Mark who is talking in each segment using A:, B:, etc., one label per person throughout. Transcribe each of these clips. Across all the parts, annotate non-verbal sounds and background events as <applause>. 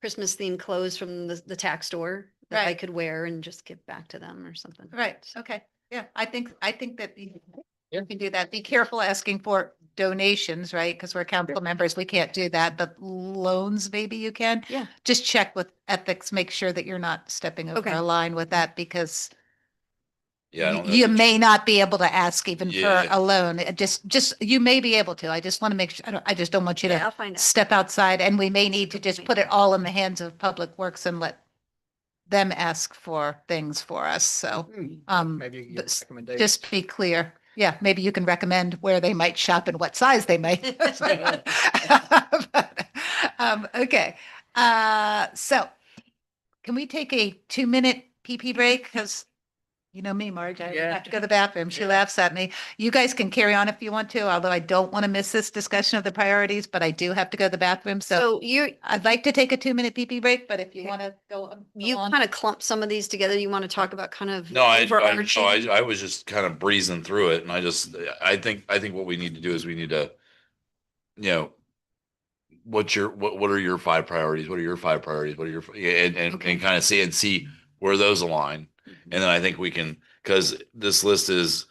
A: Christmas themed clothes from the, the tax store that I
B: Right.
A: could wear and just give back to them or something.
B: Right, okay, yeah, I think, I think that you
C: Yeah.
B: you can do that. Be careful asking for donations, right? Because we're council members, we can't do that, but loans, maybe you can.
A: Yeah.
B: Just check with ethics, make sure that you're not stepping over
A: Okay.
B: a line with that because
D: Yeah, I don't know.
B: you
D: that
B: may not be able to ask even for
D: Yeah.
B: a loan. It Just, just, you may be able to. I just want to make sure, I don't, I just don't want you
A: Yeah,
B: to
A: I'll find out.
B: step outside and we may need to just put it all in the hands of Public Works and let them ask for things for us, so,
D: Hmm.
B: um.
C: Maybe you can
B: but
C: get
B: s-
C: recommendations.
B: Just be clear. Yeah, maybe you can recommend where they might shop and what size they <laughs> might. Um, okay, uh, so can we take a two-minute PP break? Because you know me, Marge, I
C: Yeah.
B: have to go to the bathroom. She
C: Yeah.
B: laughs at me. You guys can carry on if you want to, although I don't want to miss this discussion of the priorities, but I do have to go to the bathroom. So
A: So you,
B: I'd like to take a two-minute PP break, but if you
A: Okay.
B: want to go on. go
A: you
B: on.
A: kind of clump some of these together. You want to talk about kind of.
D: No, I, I, no,
A: overarching-
D: I, I was just kind of breezing through it and I just, I think, I think what we need to do is we need to, you know, what's your, what, what are your five priorities? What are your five priorities? What are your, f- yeah, and, and,
A: Okay. Mm-hmm.
D: and kind of see and see where those align. And then I think we can, because this list is,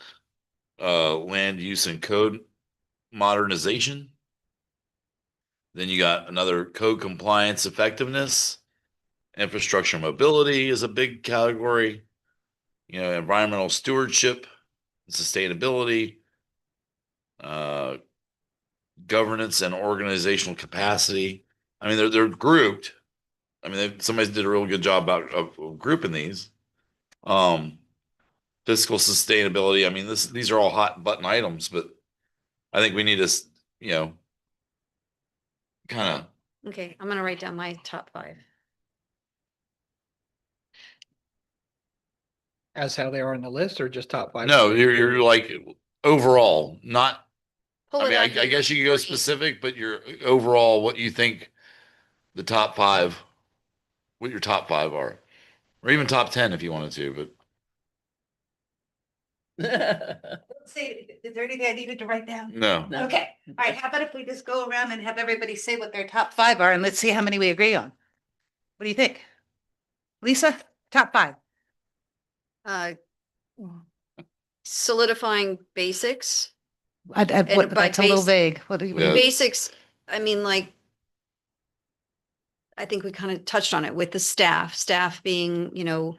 D: uh, land use and code modernization. Then you got another code compliance effectiveness. Infrastructure mobility is a big category you know, environmental stewardship, sustainability, uh, governance and organizational capacity. I mean, they're, they're grouped. I mean, they- somebody did a real good job about of of grouping these. Um, fiscal sustainability. I mean, this, these are all hot button items, but I think we need to, s- you know, kind of
A: Okay, I'm gonna write down my top five.
C: As how they are on the list or just top five?
D: no, you're, you're like overall, not
A: Pull
D: I
A: it
D: mean,
A: out of
D: I, I
A: your-
D: guess you could go
A: three.
D: specific, but your overall, what you think the top five, what your top five are, or even top 10 if you wanted to, but
B: Say, is there anything I needed to write down?
D: no.
C: No.
B: Okay, all right, how about if we just go around and have everybody say what their top five are and let's see how many we agree on? What do you think? Lisa, top five?
A: Uh, Solidifying basics,
B: I, I, what-
A: by
B: that's a little
A: base-
B: vague. What do you, what do
D: Yeah.
B: you-
A: basics, I mean, like. I think we kind of touched on it with the staff, staff being, you know.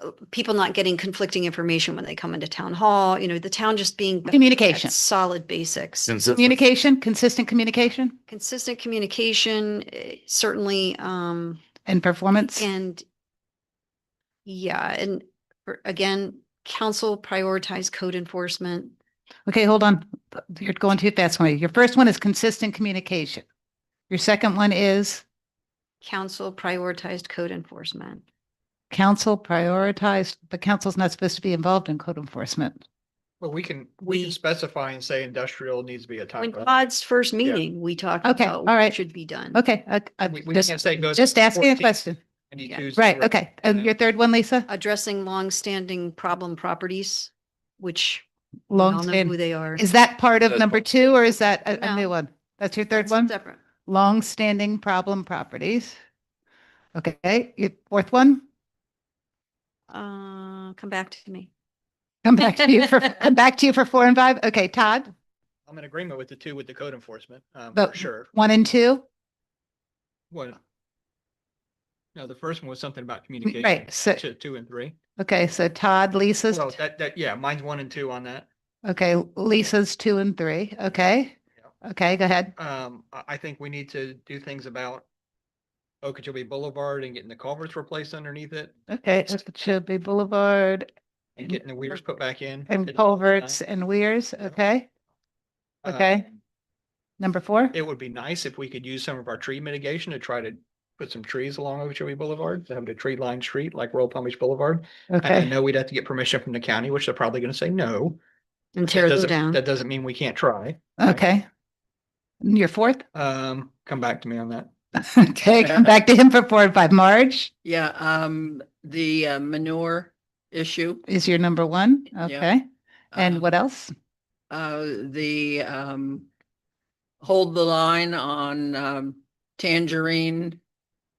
A: uh, People not getting conflicting information when they come into town hall, you know, the town just being. better at
B: communication,
A: Solid basics.
D: Since it-
B: communication, consistent communication
A: consistent communication, eh, certainly, um,
B: and performance.
A: and yeah, and for- again, council prioritize code enforcement.
B: Okay, hold on. You're going too fast for me. Your first one is consistent communication. Your second one is
A: Council prioritized code enforcement.
B: council prioritized, but council's not supposed to be involved in code enforcement.
C: But we can, we
A: We-
C: can specify and say industrial needs to be a top.
A: When
C: five.
A: Todd's first meeting, we talked
B: Okay,
A: about
B: all
A: what
B: right.
A: should be done.
B: Okay, I, I
C: We, we
B: just,
C: can't say go. to
B: just asking a
C: 14,
B: question.
C: and you
A: Yeah.
C: choose
B: Right,
C: the-
B: okay. And your third one, Lisa?
A: Addressing longstanding problem properties, which we all know who
B: Long,
A: they are.
B: is that part of
D: That's
B: number two or is that a, a
A: No.
B: new one? That's your third one?
A: Separate.
B: Long-standing problem properties. Okay, your fourth one?
A: Uh, come back to me.
B: Come back
A: <laughs>
B: to you for, come back to you for four and five. Okay, Todd,
C: I'm in agreement with the two with the code enforcement, um, for
B: But-
C: sure.
B: one and two?
C: One. No, the first one was something about communication.
B: Right, so,
C: Two- Two and three.
B: okay, so Todd, Lisa's,
C: Well, that, that, yeah, mine's one and two on that.
B: okay, Lisa's two and three, okay? Okay, go ahead.
C: Um, I, I think we need to do things about Okeechobee Boulevard and getting the culverts replaced underneath it
B: Okay, Okeechobee Boulevard
C: and
B: And-
C: getting the weirs put back in.
B: and
C: It's-
B: culverts and weirs, okay?
C: uh,
B: okay. Number four?
C: It would be nice if we could use some of our tree mitigation to try to put some trees along Okeechobee Boulevard, to have a tree lined street like Royal Palm Beach Boulevard. I- I
B: Okay,
C: know we'd have to get permission from the county, which they're probably gonna say no.
A: And
C: That
A: tear those
C: doesn't-
A: down.
C: That doesn't mean we can't try.
B: okay. And Your fourth?
C: Um, come back to me on that.
B: Okay, come back to him for four and five. Marge
E: Yeah, um, the uh, manure issue.
B: is your number one.
E: Yeah.
B: Okay.
E: uh,
B: And what else?
E: Uh, the, um, hold the line on, um, tangerine